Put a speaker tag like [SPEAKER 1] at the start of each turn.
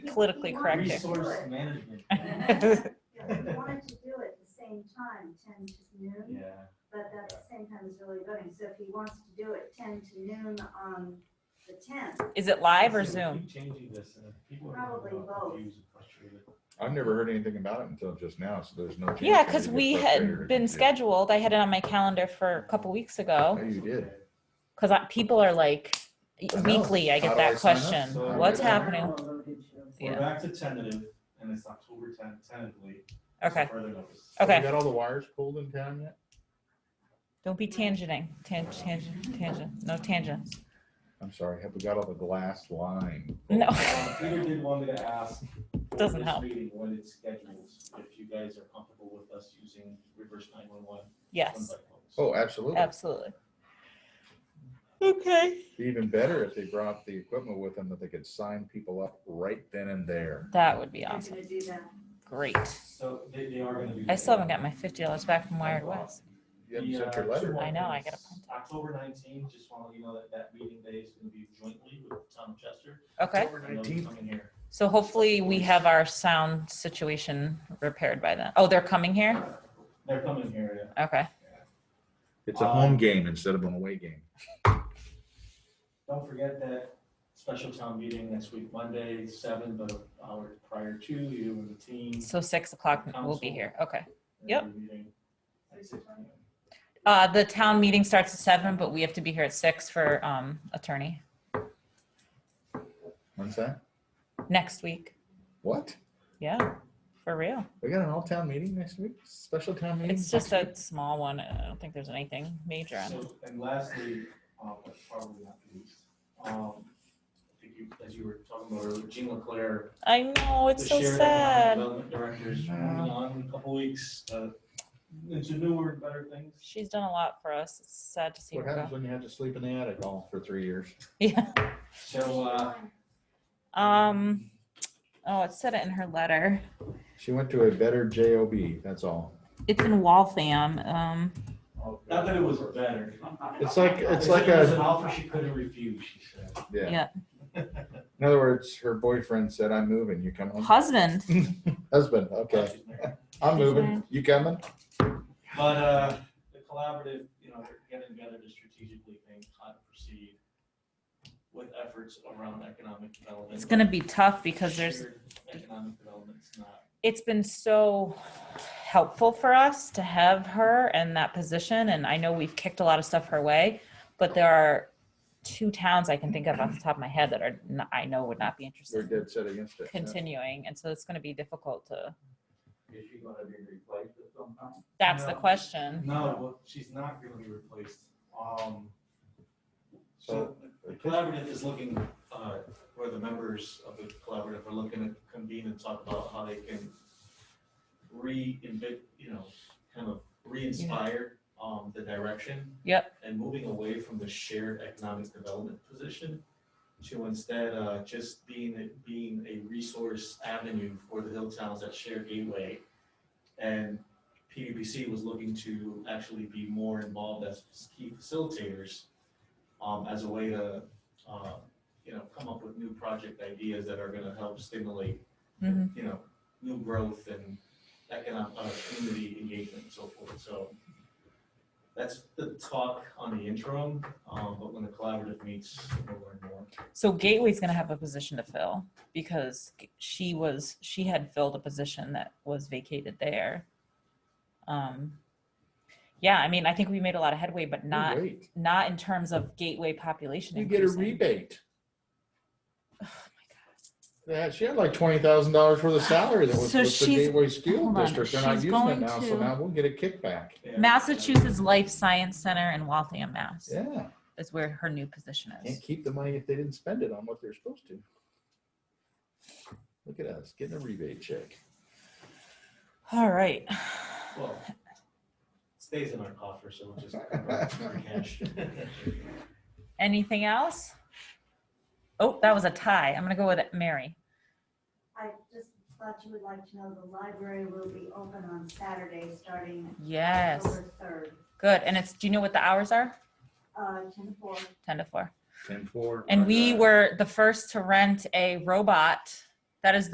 [SPEAKER 1] politically correct here.
[SPEAKER 2] Resource management.
[SPEAKER 3] If we wanted to do it at the same time, ten to noon,
[SPEAKER 2] Yeah.
[SPEAKER 3] but that's the same time as early voting, so if he wants to do it ten to noon on the tenth,
[SPEAKER 1] Is it live or
[SPEAKER 2] Listen, we
[SPEAKER 1] Zoom?
[SPEAKER 2] keep Changing this and people are. gonna
[SPEAKER 3] Probably
[SPEAKER 2] get
[SPEAKER 3] both.
[SPEAKER 2] confused and frustrated.
[SPEAKER 4] I've never heard anything about it until just now, so there's no. chance
[SPEAKER 1] Yeah,
[SPEAKER 4] that
[SPEAKER 1] because
[SPEAKER 4] you
[SPEAKER 1] we
[SPEAKER 4] get frustrated or
[SPEAKER 1] had been
[SPEAKER 4] confused.
[SPEAKER 1] scheduled. I had it on my calendar for a couple weeks ago.
[SPEAKER 4] Yeah, Oh, you did.
[SPEAKER 1] Because people are like, e,
[SPEAKER 4] I know.
[SPEAKER 1] weekly, I
[SPEAKER 4] How
[SPEAKER 1] get
[SPEAKER 4] do
[SPEAKER 1] that
[SPEAKER 4] sign up?
[SPEAKER 1] question.
[SPEAKER 2] So-
[SPEAKER 1] What's
[SPEAKER 4] Yeah.
[SPEAKER 1] happening?
[SPEAKER 2] We're
[SPEAKER 1] Yeah.
[SPEAKER 2] back to tentative and it's October tenth, tentatively. so
[SPEAKER 1] Okay,
[SPEAKER 2] Further notice.
[SPEAKER 4] Have you
[SPEAKER 1] okay.
[SPEAKER 4] Got all the wires pulled in town yet?
[SPEAKER 1] Don't be tangenting. Tangent, tangent, tangent. No tangents.
[SPEAKER 4] I'm sorry, have we got all the glass line? pulled?
[SPEAKER 1] No.
[SPEAKER 2] Um, Peter did want me to ask. for
[SPEAKER 1] Doesn't
[SPEAKER 2] this
[SPEAKER 1] help.
[SPEAKER 2] Meeting when it's scheduled, if you guys are comfortable with us using reverse nine one one.
[SPEAKER 1] Yes,
[SPEAKER 4] Oh, absolutely.
[SPEAKER 1] absolutely. Okay.
[SPEAKER 4] Even better if they brought the equipment with them that they could sign people up right then and there.
[SPEAKER 1] That would be
[SPEAKER 3] we're
[SPEAKER 1] awesome.
[SPEAKER 3] gonna do that.
[SPEAKER 1] Great.
[SPEAKER 2] So they, they are gonna do.
[SPEAKER 1] I still haven't got my fifty dollars back from Wired West.
[SPEAKER 4] You haven't
[SPEAKER 2] The,
[SPEAKER 4] sent
[SPEAKER 2] uh,
[SPEAKER 4] your letter.
[SPEAKER 2] two
[SPEAKER 1] I know, I
[SPEAKER 2] things.
[SPEAKER 1] gotta print
[SPEAKER 2] October nineteenth, just want to you know that that meeting day is gonna be jointly with Tom Chester.
[SPEAKER 1] Okay,
[SPEAKER 2] I know he's
[SPEAKER 4] 19th.
[SPEAKER 2] Coming here.
[SPEAKER 1] so hopefully we have our sound situation repaired by then. Oh, they're coming here?
[SPEAKER 2] They're coming here,
[SPEAKER 1] Okay.
[SPEAKER 2] yeah.
[SPEAKER 4] It's a home game instead of an away game.
[SPEAKER 2] Don't forget that special town meeting next week, Monday, seven, but an hour prior to you and the team.
[SPEAKER 1] So six o'clock, we'll be here. Okay. Yep.
[SPEAKER 2] and the meeting at 6 p.m.
[SPEAKER 1] Uh, the town meeting starts at seven, but we have to be here at six for, um, attorney
[SPEAKER 4] When's that?
[SPEAKER 1] next week.
[SPEAKER 4] What?
[SPEAKER 1] Yeah, for real.
[SPEAKER 4] We got an all-town meeting next week? Special town meeting?
[SPEAKER 1] It's just
[SPEAKER 4] next
[SPEAKER 1] a small one. I don't think there's anything major on it.
[SPEAKER 2] So, and lastly, um, but probably not least, um, I think you, as you were talking about earlier, Jean Leclerc.
[SPEAKER 1] I know, it's
[SPEAKER 2] the
[SPEAKER 1] so
[SPEAKER 2] shared economic
[SPEAKER 1] sad.
[SPEAKER 2] development Director is
[SPEAKER 4] Yeah.
[SPEAKER 2] moving on in a couple weeks, uh, into newer and better things.
[SPEAKER 1] She's done a lot for us. It's sad to see
[SPEAKER 4] week? What
[SPEAKER 1] her
[SPEAKER 4] happens
[SPEAKER 1] go.
[SPEAKER 4] when you have to sleep in the attic all for three years?
[SPEAKER 1] Yeah.
[SPEAKER 2] So, uh,
[SPEAKER 1] Um, oh, it said it in her letter.
[SPEAKER 4] She went to a better JOB, that's all.
[SPEAKER 1] It's in Waltham. Um,
[SPEAKER 2] not that it was better.
[SPEAKER 4] It's like, it's like
[SPEAKER 2] It was an
[SPEAKER 4] a,
[SPEAKER 2] offer she couldn't refuse, she said.
[SPEAKER 4] yeah.
[SPEAKER 1] Yeah.
[SPEAKER 4] In other words, her boyfriend said, I'm moving, you coming?
[SPEAKER 1] husband.
[SPEAKER 4] Husband, okay,
[SPEAKER 2] She's married.
[SPEAKER 4] I'm moving, you coming?
[SPEAKER 2] But uh, the collaborative, you know, they're getting together to strategically think how to proceed with efforts around economic development.
[SPEAKER 1] It's gonna be tough because there's,
[SPEAKER 2] Shared Economic development's not.
[SPEAKER 1] it's been so helpful for us to have her in that position. And I know we've kicked a lot of stuff her way, but there are two towns I can think of off the top of my head that are, n- I know would not be
[SPEAKER 4] They're
[SPEAKER 1] interested in
[SPEAKER 4] dead set against it. yeah.
[SPEAKER 1] continuing. And so it's gonna be difficult to,
[SPEAKER 5] Is she gonna be replaced at some time?
[SPEAKER 1] that's the
[SPEAKER 2] No.
[SPEAKER 1] question.
[SPEAKER 2] No, well, she's not gonna be replaced. Um, so
[SPEAKER 4] So-
[SPEAKER 2] the collaborative is looking, uh, where the members of the collaborative are looking to convene and talk about how they can re you know, kind of re-inspire, um, the direction
[SPEAKER 1] Yep,
[SPEAKER 2] and moving away from the shared economic development position to instead uh, just being, a- being a resource avenue for the Hilltowns that share gateway. And PVPC was looking to actually be more involved as key facilitators um, as a way to, uh, you know, come up with new project ideas that are gonna help stimulate,
[SPEAKER 1] Mhm.
[SPEAKER 2] you know, new growth and economic, uh, community engagement and so forth. So that's the talk on the interim, um, but when the collaborative meets, we'll learn more.
[SPEAKER 1] So Gateway's gonna have a position to fill because she was, she had filled a position that was vacated there. Um, yeah, I mean, I think we made a lot of headway, but not,
[SPEAKER 4] Wait,
[SPEAKER 1] not in terms of Gateway population.
[SPEAKER 4] You get a
[SPEAKER 1] increasing. Oh
[SPEAKER 4] rebate. Yeah, she had like twenty thousand dollars worth of salary that was
[SPEAKER 1] So
[SPEAKER 4] with the
[SPEAKER 1] she's-
[SPEAKER 4] Gateway School
[SPEAKER 1] hold on,
[SPEAKER 4] District. They're not
[SPEAKER 1] she's
[SPEAKER 4] using it
[SPEAKER 1] going
[SPEAKER 4] now, so
[SPEAKER 1] to-
[SPEAKER 4] now we'll get a kickback.
[SPEAKER 2] Yeah.
[SPEAKER 1] Massachusetts Life Science Center in Waltham, Mass.
[SPEAKER 4] Yeah,
[SPEAKER 1] Is where her new position
[SPEAKER 4] can't
[SPEAKER 1] is.
[SPEAKER 4] keep the money if they didn't spend it on what they're supposed to. Look at us, getting a rebate check.
[SPEAKER 1] All right.
[SPEAKER 2] Well, it Stays in our coffer, so we'll just convert it for cash.
[SPEAKER 1] Anything else? Oh, that was a tie. I'm gonna go with Mary.
[SPEAKER 3] I just thought you would like to know the library will be open on Saturday, starting
[SPEAKER 1] Yes,
[SPEAKER 3] October third,
[SPEAKER 1] good. And it's, do you know what the hours are?
[SPEAKER 3] uh, ten to four.
[SPEAKER 1] Ten to four.
[SPEAKER 4] Ten four.
[SPEAKER 1] And we were the first to rent a robot That is the